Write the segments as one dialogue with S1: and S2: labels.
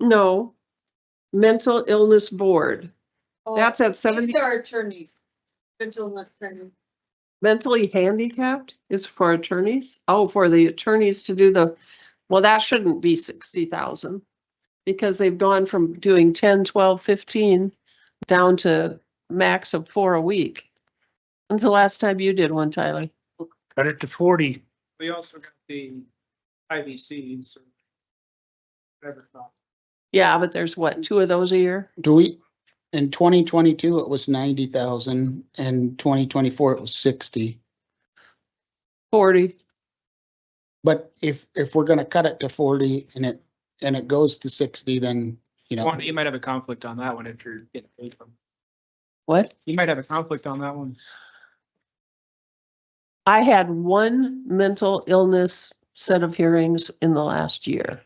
S1: No, mental illness board.
S2: Oh,
S1: That's at
S2: These
S1: seventy,
S2: are attorneys, mental illness attorney.
S1: mentally handicapped is for attorneys. Oh, for the attorneys to do the, well, that shouldn't be sixty thousand. Because they've gone from doing 10, 12, 15 down to max of four a week. When's the last time you did one, Tyler?
S3: Cut it to forty.
S4: We also got the IVC, so. Whatever. it's called.
S1: Yeah, but there's what, two of those a year?
S5: Do we, in twenty twenty-two, it was ninety thousand, and twenty twenty-four, it was sixty.
S1: Forty.
S5: But if, if we're gonna cut it to forty and it, and it goes to sixty, then, you know,
S4: One, you might have a conflict on that one if you're getting paid from.
S1: What?
S4: You might have a conflict on that one.
S1: I had one mental illness set of hearings in the last year.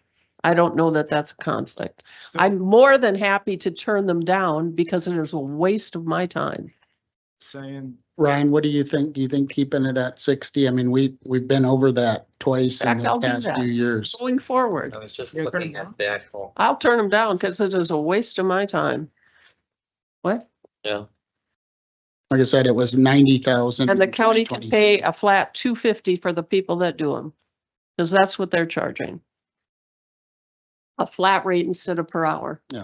S1: I don't know that that's a conflict.
S4: So-
S1: I'm more than happy to turn them down because it is a waste of my time.
S4: Saying,
S5: Ryan, what do you think? Do you think keeping it at sixty? I mean, we, we've been over that twice in
S1: Heck,
S5: the
S1: I'll do
S5: past
S1: that.
S5: few years.
S1: Going forward,
S6: I was just
S4: Yeah, turn it
S6: looking
S4: down.
S6: at the actual,
S1: I'll turn them down because it is a waste of my time. What?
S6: yeah,
S5: Like I said, it was ninety thousand.
S1: And the county can pay a flat two fifty for the people that do them. Because that's what they're charging. A flat rate instead of per hour.
S6: I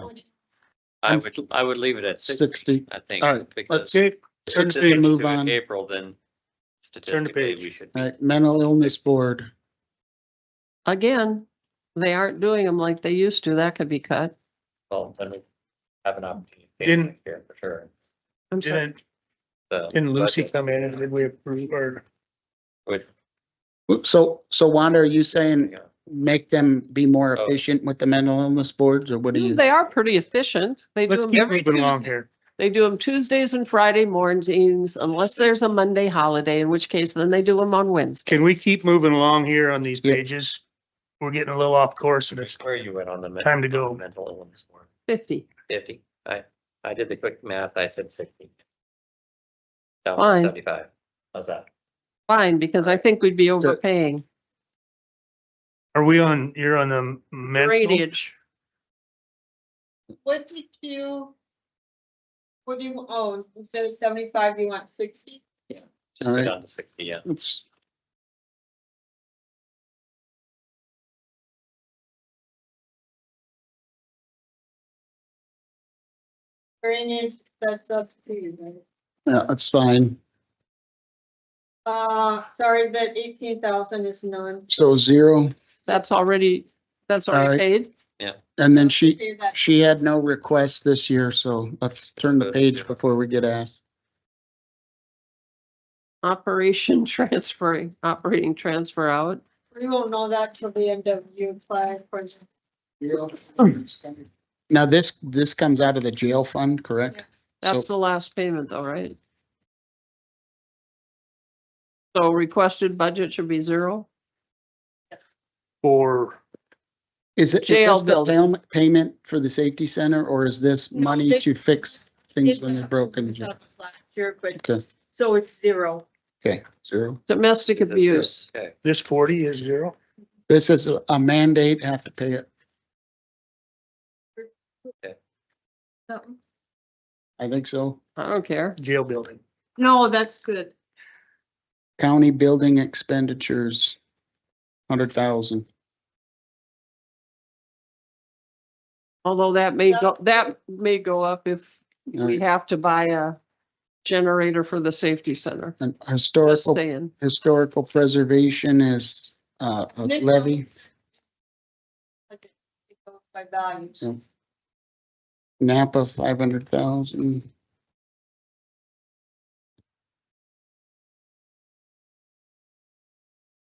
S5: I'm
S6: would, I would leave it at sixty,
S5: Sixty.
S6: I think.
S5: All right,
S6: because
S3: Okay,
S6: if
S5: turn
S6: this
S5: to
S6: is
S5: move
S6: due in
S5: on.
S6: April, then statistically,
S3: page.
S6: we should. be-
S5: All right, mental illness board.
S1: Again, they aren't doing them like they used to. That could be cut.
S6: Well, then we have an opportunity. to change
S3: Didn't-
S6: next year For sure.
S1: I'm sorry.
S3: didn't,
S6: So,
S3: didn't Lucy
S6: budget
S3: come in and did we approve or?
S6: would-
S5: So, so Wanda, are you saying
S6: yeah.
S5: make them be more
S6: Oh.
S5: efficient with the mental illness boards or what do you?
S1: They are pretty efficient. They do
S3: Let's
S1: them
S3: keep
S1: every,
S3: moving along here.
S1: they do them Tuesdays and Friday mornings unless there's a Monday holiday, in which case then they do them on Wednesday.
S3: Can we keep moving along here on these
S5: Yeah.
S3: pages? We're getting a little off course and it's
S6: Where are you at on the? men-
S3: time to go.
S6: Mental illness one,
S1: Fifty,
S6: fifty, I, I did the quick math, I said sixty. Down
S1: Fine.
S6: seventy-five, how's that?
S1: fine, because I think we'd be overpaying.
S3: Are we on, you're on the mental?
S1: Drainage,
S2: What did you? What do you, oh, instead of seventy-five, you want sixty?
S6: Just
S5: All
S6: go
S5: right.
S6: down to sixty, yeah.
S5: It's,
S2: Drainage, that's up to you, right?
S5: yeah, it's fine.
S2: Uh, sorry, that eighteen thousand is none.
S5: So zero.
S1: that's already, that's already
S5: Alright.
S1: paid.
S5: And then she,
S2: Okay, that-
S5: She had no requests this year, so let's turn the page before we get asked.
S1: Operation transferring, operating transfer out.
S2: We won't know that till the end of you apply for. the-
S5: Now, this, this comes out of the jail fund, correct?
S1: That's
S5: So-
S1: the last payment though, right? So requested budget should be zero.
S3: Or
S5: Is it,
S1: Jail
S5: is this the
S1: building.
S5: payment, payment for the safety center, or is this
S2: No,
S5: money
S2: this-
S5: to fix things when they're
S2: It-
S5: broken?
S1: uh,
S2: that was Last year, but,
S5: Okay,
S2: so it's zero.
S5: okay, zero.
S1: Domestic
S6: Is this your-
S1: abuse,
S6: Okay,
S3: this forty is zero?
S5: This is a mandate, have to pay it.
S2: Something.
S5: I think so.
S1: I don't care.
S3: Jail building.
S2: No, that's good.
S5: County building expenditures, hundred thousand.
S1: Although that may
S2: Yeah.
S1: go, that may go up if we have to buy a generator for the safety center.
S5: And
S1: Just
S5: historical,
S1: saying.
S5: historical preservation is, uh, a
S2: This
S5: levy.
S2: goes- Okay, it goes By value.
S5: So Napa, five hundred thousand.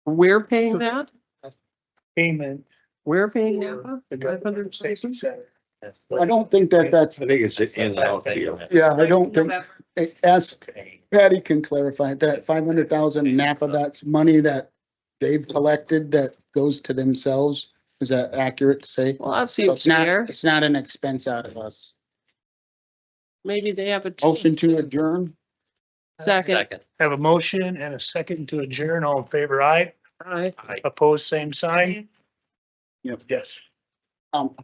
S1: We're paying that?
S3: Payment.
S1: We're paying
S3: for
S1: Napa?
S3: the
S1: Five hundred
S3: government safety
S1: thousand?
S3: center.
S6: that's-
S5: I don't think that that's,
S7: I think it's
S6: that's
S7: the in
S6: what I'm
S7: out
S6: saying.
S7: deal.
S5: yeah, I don't think,
S2: November.
S5: ask
S6: Okay.
S5: Patty can clarify that five hundred thousand Napa, that's money that they've collected that goes to themselves. Is that accurate to say?
S1: Well, that seems
S5: It's not,
S1: fair.
S5: it's not an expense out of us.
S1: Maybe they have a
S5: Motion
S1: team.
S5: to adjourn?
S1: Second,
S6: Second,
S3: Have a motion and a second to adjourn. All in favor, aye.
S1: aye.
S6: I-
S3: Opposed, same sign?
S5: Yep.
S3: Yes.
S5: Um,